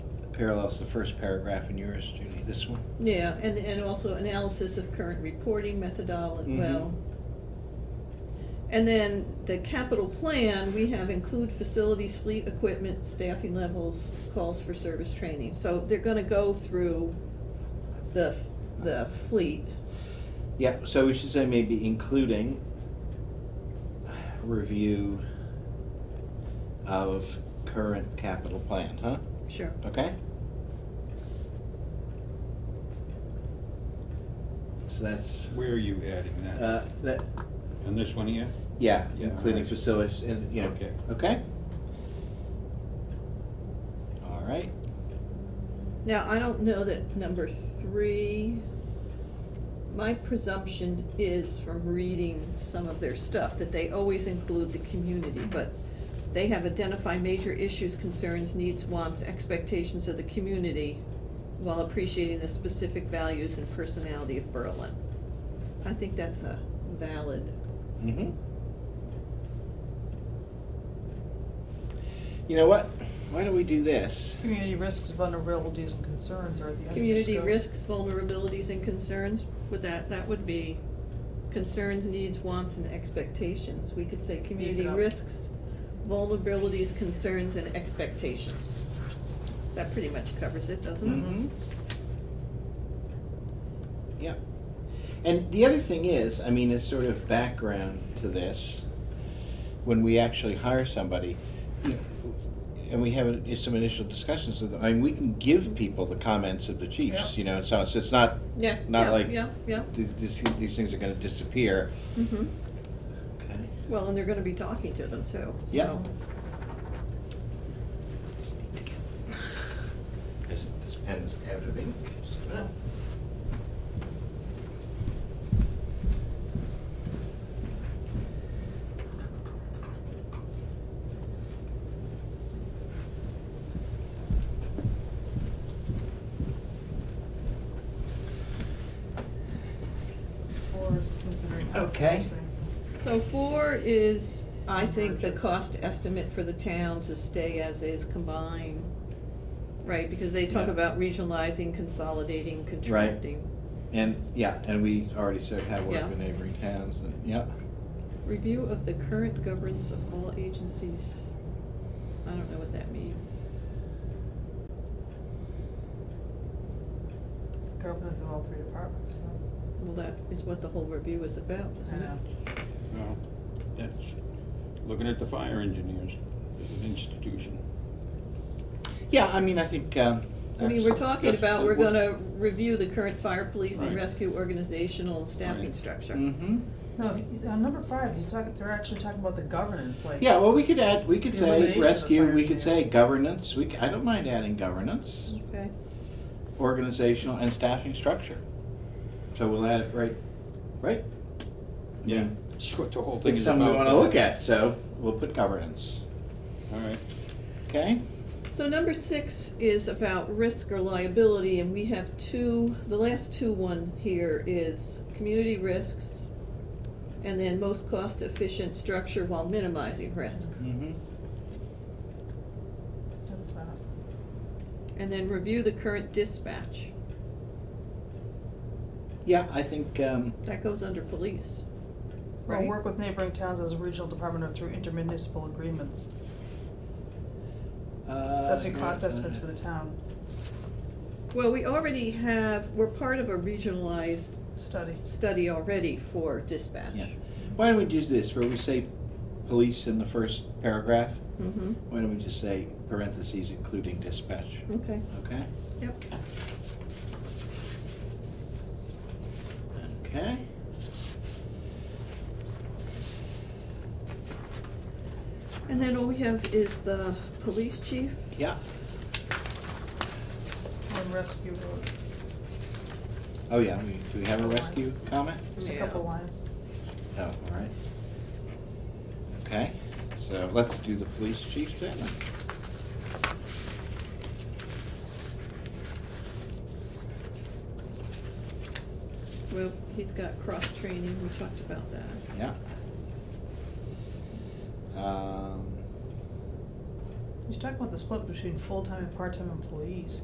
parallels the first paragraph in yours, Judy, this one? Yeah, and, and also analysis of current reporting methodology, Mhm. well. And then the capital plan, we have include facilities, fleet, equipment, staffing levels, calls for service training. So they're gonna go through the, the fleet. Yeah, so we should say maybe including review of current capital plan, huh? Sure. Okay? So that's, Where are you adding that? uh, that, On this one here? yeah, Yeah, including alright. facilities and, you know, Okay. okay? All right, Now, I don't know that number three, my presumption is from reading some of their stuff, that they always include the community, but they have identified major issues, concerns, needs, wants, expectations of the community while appreciating the specific values and personality of Berlin. I think that's a valid, mm-hmm. You know what? Why don't we do this? Community risks, vulnerabilities, and concerns are at the end of the community scope. risks, vulnerabilities, and concerns, would that, that would be concerns, needs, wants, and expectations. We could say community up. risks, vulnerabilities, concerns, and expectations. That pretty much covers it, doesn't Mhm. Yeah. And the other thing is, I mean, as sort of background to this, when we actually hire somebody, you know, and we have uh, some initial discussions with them, I mean, we can give people the comments of the chiefs, Yeah. you know, so, so it's not, it? Yeah, Not yeah, like- yeah, yeah. these, these, these things are gonna disappear. Mhm. Okay. Well, and they're gonna be talking to them too. Yeah. so. This, this pen is out of ink, just about. Or is considering Okay. outsourcing. So four is, I think, the cost estimate for the town to stay as is combined, right? Because they talk Yeah. about regionalizing, consolidating, contracting. And, yeah, and we already sort of have worked Yeah. with neighboring towns and, yeah. Review of the current governance of all agencies. I don't know what that means. Governance of all three departments, so. Well, that is what the whole review is about, isn't Yeah. it? No, that's, looking at the fire engineers as an institution. Yeah, I mean, I think, um, I mean, we're That's- talking that's- about, we're what- gonna review the current fire, police, and Right. rescue organizational staffing Right. structure. mm-hmm. No, he- on number five, he's talking, they're actually talking about the governance, like. Yeah, well, we could add, we could The say elimination of rescue, fire we could say engineers. governance, we, c- I don't mind adding governance, Okay, organizational and staffing structure. So we'll add it right, right? Yeah, that's what the whole thing It's is something we about. wanna look at, so we'll put governance, All right, okay? so number six is about risk or liability, and we have two, the last two one here is community risks, and then most cost-efficient structure while minimizing risk. Mm-hmm. What's that? And then review the current dispatch. Yeah, I think, um, That goes under police. Or Right. work with neighboring towns as a regional department or through intermunicipal agreements. uh. That's your cost estimates for the town Well, we already have, we're part of a regionalized study. study already for dispatch. Yeah. Why don't we use this, where we say police in the first paragraph, Mm-hmm, why don't we just say parentheses including dispatch, okay, okay? yep. Okay. And then all we have is the police chief. Yeah, And rescue, uh, oh yeah, we- do we have a rescue comment? just a Yeah. couple lines. Oh, all right. Okay, so let's do the police chief then. Well, he's got cross-training, we talked about that. Yeah. Um, He's talking about the split between full-time and part-time employees.